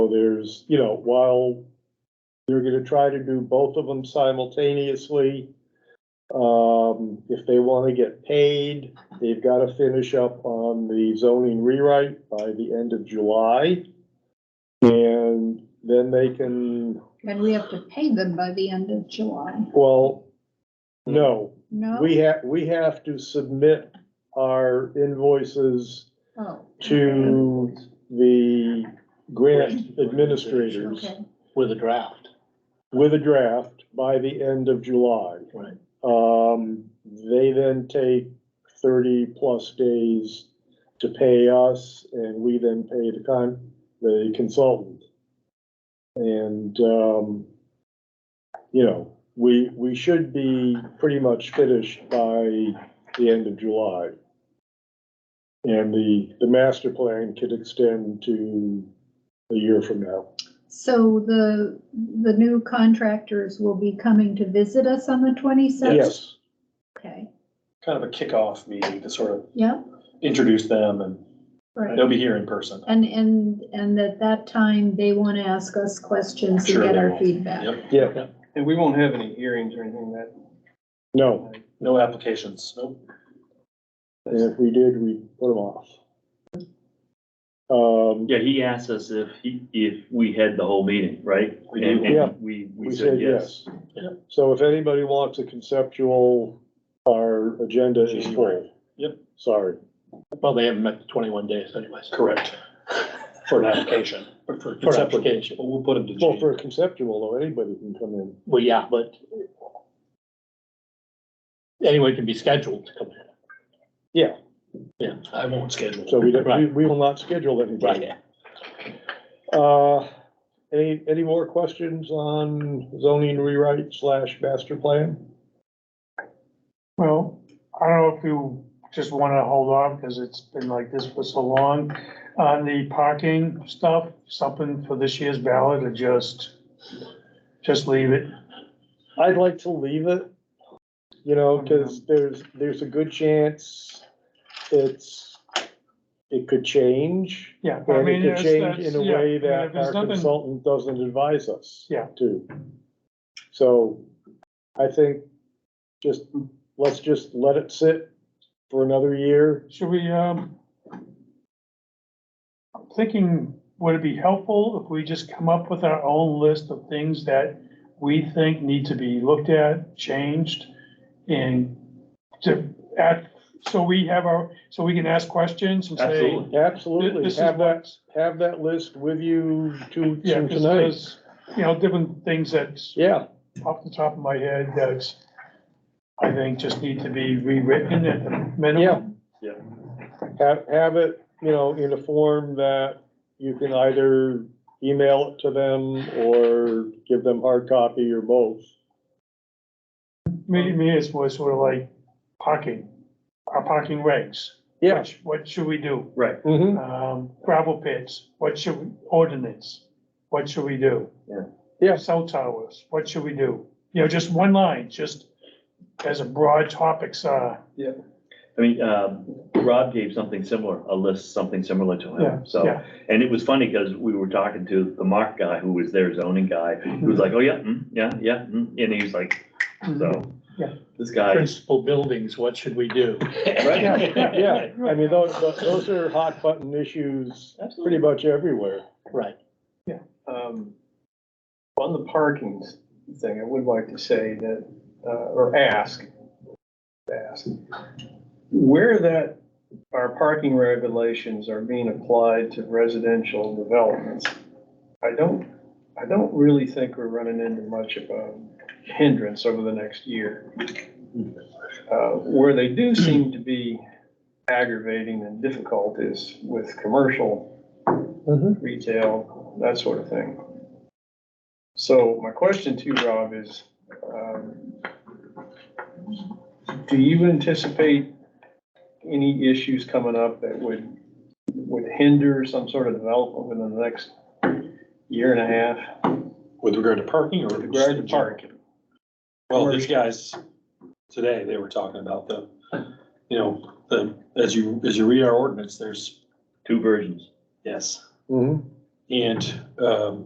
there's, you know, while they're gonna try to do both of them simultaneously, um, if they wanna get paid, they've gotta finish up on the zoning rewrite by the end of July. And then they can, But we have to pay them by the end of July, well, no, no? we have, we have to submit our invoices Oh, to the grant administrators okay, with a draft. with a draft by the end of July. Right. Um, they then take thirty-plus days to pay us, and we then pay the con, the consultant. And, um, you know, we, we should be pretty much finished by the end of July. And the, the master plan could extend to a year from now. so the, the new contractors will be coming to visit us on the twenty-seventh? Yes, Okay, kind of a kickoff meeting to sort of yeah, introduce them and right. they'll be here in person. And, and, and at that time, they want to ask us questions and Sure get they our will. feedback. Yep, yeah, And we won't have any hearings or anything that. no. no applications, nope. And if we did, we put them off. Um, Yeah, he asked us if he, if we had the whole meeting, right? We did. And- and Yeah. We, we said yes. Yeah. So if anybody wants a conceptual, our agenda is full. Yep. Sorry. Well, they haven't met the twenty-one days anyways, Correct. for an application, But for for an conceptual, application. but we'll put them to Well, Gene. for a conceptual, though, anybody can come in. Well, yeah, but anyone can be scheduled to come in. Yeah. Yeah, I won't schedule. So we don't, we, Right. we will not schedule anybody. right. Uh, any, any more questions on zoning rewrite slash master plan? Well, I don't know if you just wanna hold on, because it's been like this for so long, on the parking stuff, something for this year's ballot, or just, just leave it? I'd like to leave it, you know, cause there's, there's a good chance it's, it could change. Yeah, I And mean, it it's, could that's, change in a yeah, I way mean, that if our there's nothing, consultant doesn't advise us. Yeah. To. So I think just, let's just let it sit for another year. should we, um, I'm thinking, would it be helpful if we just come up with our own list of things that we think need to be looked at, changed, and to act, so we have our, so we can ask questions and say. Absolutely. "Thi- Absolutely, This is have that, what, have that list with you to, yeah, to 'cause tonight. there's, you know, different things that's Yeah, off the top of my head that's, I think just need to be rewritten at the minimum. have, have it, you know, in a form that you can either email it to them or give them hard copy or both. Me, me is was sort of like parking, our parking regs. Yeah. What- What should we do? Right. hmm Um, gravel pits, what should, we ordinance, what should we do? Yeah. Yeah. Cell towers, what should we do? You know, just one line, just as a broad topics, uh, I mean, um, Rob gave something similar, a list, something similar to Yeah, him, so. yeah. And it was funny because we were talking to the Mark guy, who was their zoning guy, who was like, oh, yeah, mm, yeah, yeah, mm," and he was like, so. Yeah. This guy, Principal buildings, what should we do? Yeah, yeah, I mean, those, those are hot button issues pretty much everywhere. Right. Um, On the parking thing, I would like to say that, uh, or ask, ask, where that, our parking regulations are being applied to residential developments, I don't, I don't really think we're running into much of a hindrance over the next year. Uh, Where they do seem to be aggravating and difficult is with commercial retail, that sort of thing. So my question to you, Rob, is, um, do you anticipate any issues coming up that would, would hinder some sort of development within the next year and a half? With regard to parking or? With regard to parking. Well, these guys, today, they were talking about the, you know, the, as you, as you read our ordinance, there's, Mm-hmm. two versions. yes. hmm And, um,